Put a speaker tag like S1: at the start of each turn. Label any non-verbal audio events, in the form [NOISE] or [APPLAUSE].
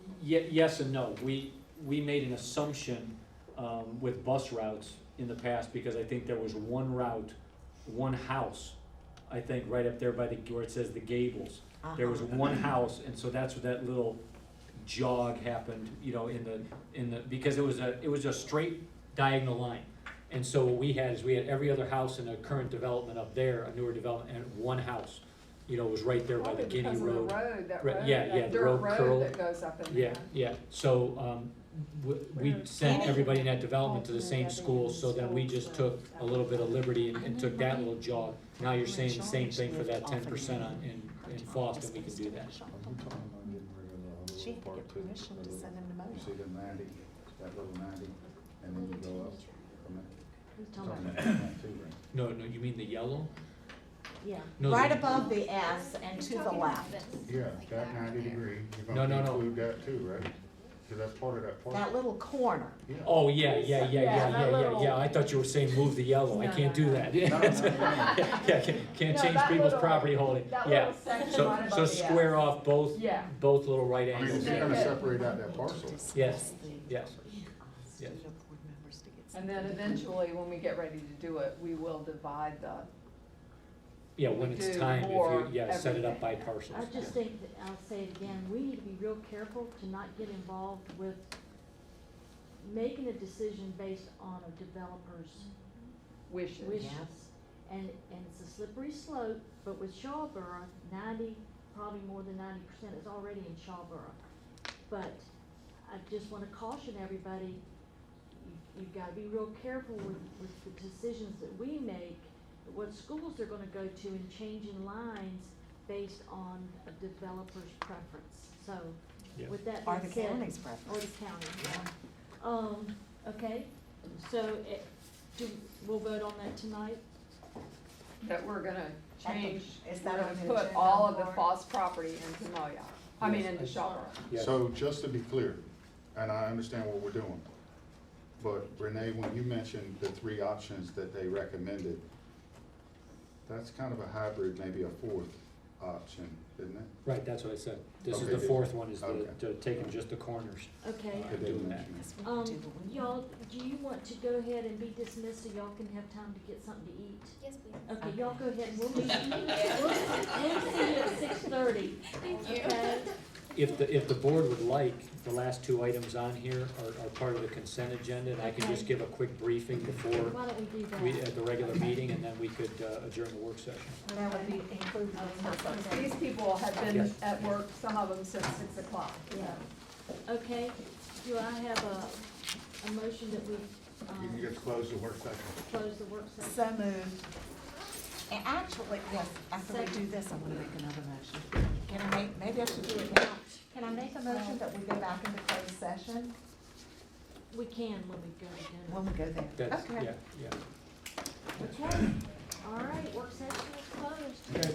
S1: Ye- yes and no. We, we made an assumption, um, with bus routes in the past, because I think there was one route, one house, I think, right up there by the, where it says the gables. There was
S2: Uh-huh.
S1: one house, and so that's where that little jog happened, you know, in the, in the, because it was a, it was a straight diagonal line. And so what we had is we had every other house in a current development up there, a newer development, and one house, you know, was right there by the
S2: Probably
S1: Guinea
S2: Oh, because of the
S1: Road.
S2: road, that
S1: Right,
S2: road,
S1: yeah, yeah,
S2: that
S1: the
S2: dirt
S1: road curl.
S2: road that goes up in there.
S1: Yeah, yeah, so, um, w- we sent everybody in that development to the same school, so then we just took a little bit of liberty and, and took that little jog. Now you're saying the same thing for that ten percent on, in, in Foston, we can do that.
S3: We're talking about getting rid of the
S4: She had
S3: little
S4: to
S3: part
S4: get
S3: two,
S4: permission
S3: that
S4: to
S3: little-
S4: send him the
S3: you
S4: money.
S3: see the ninety, that little ninety, and then you go up from that.
S4: Talking about-
S3: two ring.
S1: No, no, you mean the yellow?
S4: Yeah,
S1: No,
S4: right
S1: the-
S4: above the S and to the left.
S3: Yeah, that ninety degree, you're
S1: No, no,
S3: gonna
S1: no.
S3: include that too, right? Cause that's part of that
S4: That
S3: park.
S4: little corner.
S3: Yeah.
S1: Oh, yeah, yeah, yeah, yeah,
S2: Yeah,
S1: yeah,
S2: that
S1: yeah,
S2: little-
S1: yeah, I thought you were saying move the yellow, I
S2: No,
S1: can't
S2: no,
S1: do
S2: no.
S1: that. [LAUGHS]
S3: No, no, no, no.
S1: Yeah, can't, can't
S2: No,
S1: change
S2: that
S1: people's
S2: little-
S1: property holding,
S2: That
S1: yeah.
S2: little section
S1: So,
S2: right above the
S1: so
S2: S.
S1: square off both,
S2: Yeah.
S1: both little right
S3: I mean,
S1: angles,
S3: if you're
S2: Yeah.
S3: gonna separate out that parcel,
S1: Yes, yes, yes.
S2: And then eventually, when we get ready to do it, we will divide the,
S1: yeah, when
S2: We
S1: it's
S2: do
S1: time, if you,
S2: more
S1: yeah, set it up by
S2: everything.
S1: parcels.
S5: I just think, that- I'll say it again, we need to be real careful to not get involved with making a decision based on a developer's
S2: wishes.
S5: wishes. And, and it's a slippery slope, but with Shawboro, ninety, probably more than ninety percent is already in Shawboro. But I just wanna caution everybody, you, you've gotta be real careful with, with the decisions that we make, what schools they're gonna go to and changing lines based on a developer's preference. So,
S1: Yeah.
S5: with that
S4: Or
S5: being
S4: the
S5: said-
S4: county's
S5: or the
S4: preference.
S5: county, yeah. Um, okay, so it, do, we'll vote on that tonight?
S2: That we're gonna
S4: At the-
S2: change,
S4: is
S2: we're
S4: that
S2: gonna
S4: on the
S2: put
S4: agenda
S2: all of the
S4: for it?
S2: Foss property into Moayaw, I mean, into Shawboro.
S1: Yeah.
S3: So just to be clear, and I understand what we're doing, but Renee, when you mentioned the three options that they recommended, that's kind of a hybrid, maybe a fourth option, isn't it?
S1: Right, that's what I said. This is
S3: Okay,
S1: the
S3: good.
S1: fourth one, is the,
S3: Okay.
S1: to taking just the corners.
S5: Okay,
S1: I'm doing that.
S5: um, y'all, do you want to go ahead and be dismissed so y'all can have time to get something to eat?
S6: Yes, please.
S5: Okay, y'all go ahead, we'll meet, we'll, we'll see you at six thirty. Thank you. Okay,
S1: If the, if the board would like, the last two items on here are, are part of the consent agenda, and I can just
S5: Okay.
S1: give a quick briefing before
S5: why don't we do
S1: we,
S5: that?
S1: at the regular meeting, and then we could uh, adjourn the work session.
S4: That would be included in her first.
S2: These people have been
S1: Yes.
S2: at work, some of them since six o'clock.
S5: Yeah. Okay, do I have a, a motion that we,
S3: You
S5: um,
S3: just close the work session.
S5: close the work session?
S4: So moved. And actually, yes, after we do this, I'm gonna make another motion. Can I make, maybe I should do it now. Can I make a
S5: Uh,
S4: motion that we go back into closed session?
S5: We can when we go to
S4: When we go there.
S1: That's,
S4: Okay.
S1: yeah, yeah.
S5: dinner. Okay, all right, work session is closed.
S1: Okay.